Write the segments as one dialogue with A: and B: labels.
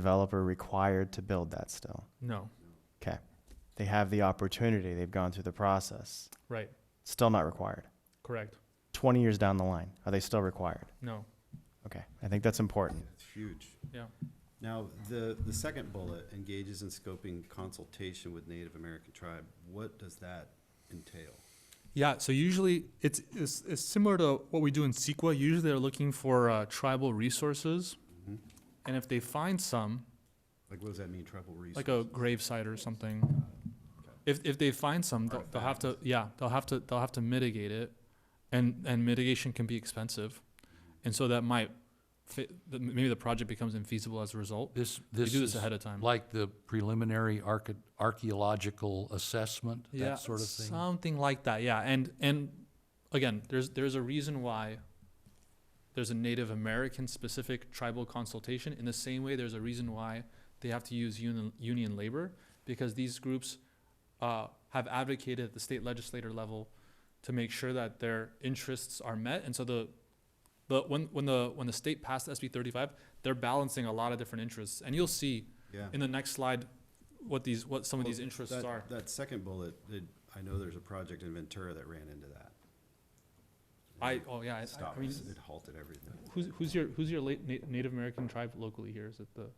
A: developer required to build that still?
B: No,
A: Okay. They have the opportunity, they've gone through the process,
B: right,
A: still not required.
B: correct,
A: 20 years down the line, are they still required?
B: no,
A: Okay, I think that's important.
C: It's huge.
B: yeah,
C: Now, the, the second bullet engages in scoping consultation with Native American tribe. What does that entail?
B: yeah. So usually it's, it's, it's similar to what we do in CEQA. Usually they're looking for uh, tribal resources,
D: Mm-hmm.
C: Mhm.
B: and if they find some,
C: Like, what does that mean, tribal resources?
B: like a gravesite or something. If, if they find some, they'll, they'll have to, yeah, they'll have to, they'll have to mitigate it, and, and mitigation can be expensive, and so that might, fi- the- maybe the project becomes infeasible as a result.
D: This,
B: We
D: this
B: do this
D: is
B: ahead of time.
D: like the preliminary archi- archaeological assessment,
B: yeah,
D: that sort of thing?
B: Something like that, yeah. And and again, there's there's a reason why there's a Native American specific tribal consultation. In the same way, there's a reason why they have to use union union labor because these groups uh, have advocated at the state legislator level to make sure that their interests are met. And so the the when when the when the state passed SB 35, they're balancing a lot of different interests. And you'll see
C: Yeah.
B: in the next slide what these what some of
C: Well,
B: these interests
C: that-
B: are.
C: That second bullet, it- I know there's a project in Ventura that ran into that.
B: I oh yeah, I- I, I
C: Stopped,
B: mean
C: it halted everything.
B: who's who's your who's your late na- Native American tribe locally here? Is it the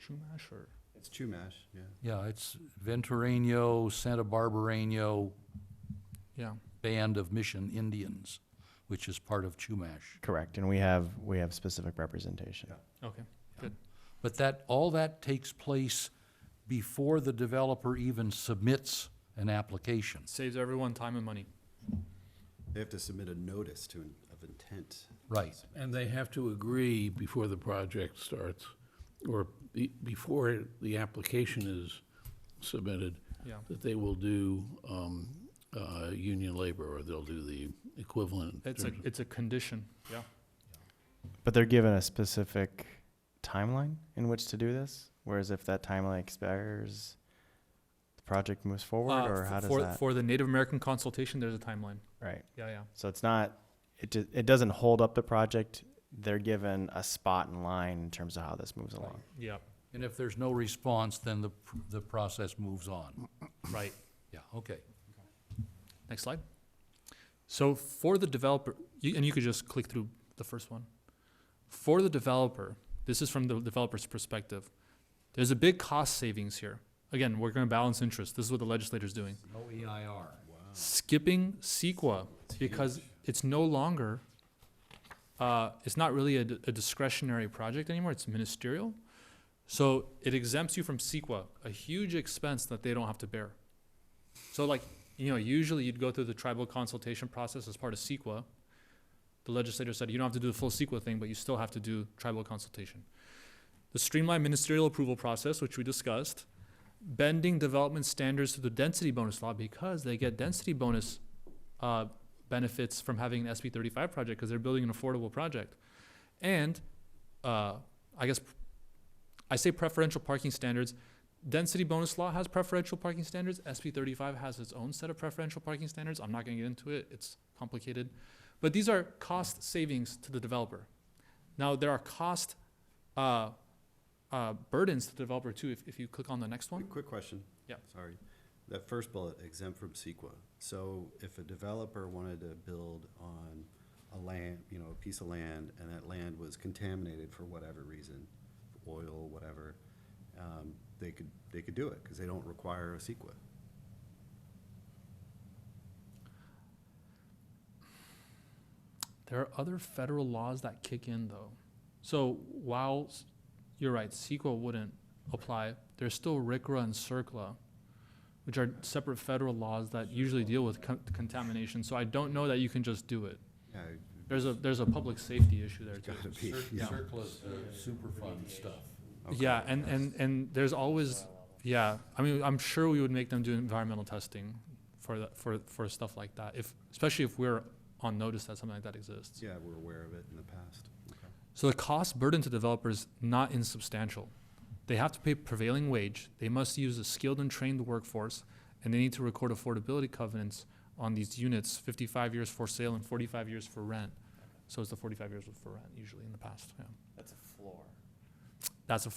B: Chumash or
C: It's Chumash, yeah.
D: Yeah, it's Ventureño, Santa Barbareño
B: yeah
D: Band of Mission Indians, which is part of Chumash.
A: Correct, and we have, we have specific representation.
C: Yeah.
B: okay
D: But that, all that takes place before the developer even submits an application.
B: saves everyone time and money.
C: They have to submit a notice to, in- of intent.
D: Right.
E: And they have to agree before the project starts, or be- before the application is submitted,
B: Yeah
E: that they will do um, uh, union labor, or they'll do the equivalent. in
B: it's a
E: terms of-
B: it's a condition. Yeah
A: But they're given a specific timeline in which to do this? Whereas if that timeline expires, the project moves forward, or how does
B: Uh, for
A: that?
B: for the Native American consultation, there's a timeline.
A: Right,
B: Yeah yeah
A: so it's not, it, do- it doesn't hold up the project. They're given a spot in line in terms of how this moves along.
B: yeah
D: And if there's no response, then the, pr- the process moves on.
B: right.
D: Yeah, okay.
B: Next slide. So for the developer, you, and you could just click through the first one. For the developer, this is from the developer's perspective. There's a big cost savings here. Again, we're going to balance interest. This is what the legislator's doing.
D: No EIR.
B: Skipping CEQA because it's no longer, uh, it's not really a, d- a discretionary project anymore. It's ministerial. So it exempts you from CEQA, a huge expense that they don't have to bear. So like, you know, usually you'd go through the tribal consultation process as part of CEQA. The legislator said you don't have to do the full CEQA thing, but you still have to do tribal consultation. The streamlined ministerial approval process, which we discussed, bending development standards to the density bonus law because they get density bonus uh, benefits from having an SB 35 project because they're building an affordable project. And uh, I guess I say preferential parking standards. Density bonus law has preferential parking standards. SB 35 has its own set of preferential parking standards. I'm not going to get into it, it's complicated. But these are cost savings to the developer. Now, there are cost uh, uh, burdens to the developer too, if, if you click on the next one.
C: Quick- Quick question.
B: Yeah.
C: Sorry. That first bullet, exempt from CEQA. So if a developer wanted to build on a land, you know, a piece of land, and that land was contaminated for whatever reason, oil, whatever, um, they could, they could do it, because they don't require a CEQA.
B: There are other federal laws that kick in though. So while s- you're right, CEQA wouldn't apply, there's still RCRA and CERCLA, which are separate federal laws that usually deal with con- contamination. So I don't know that you can just do it.
C: Yeah,
B: There's a there's a public safety issue there
C: it's
B: too.
C: gotta be, yeah.
D: CERCLA's the Superfund uh, stuff.
B: Yeah, and, and, and there's always, yeah, I mean, I'm sure we would make them do environmental testing for that, for, for stuff like that, if, especially if we're on notice that something like that exists.
C: Yeah, we're aware of it in the past. Okay.
B: So the cost burden to developers not insubstantial. They have to pay prevailing wage, they must use a skilled and trained workforce, and they need to record affordability covenants on these units, fifty-five years for sale and forty-five years for rent. So it's the forty-five years for rent usually in the past, yeah.
A: That's a floor.
B: That's a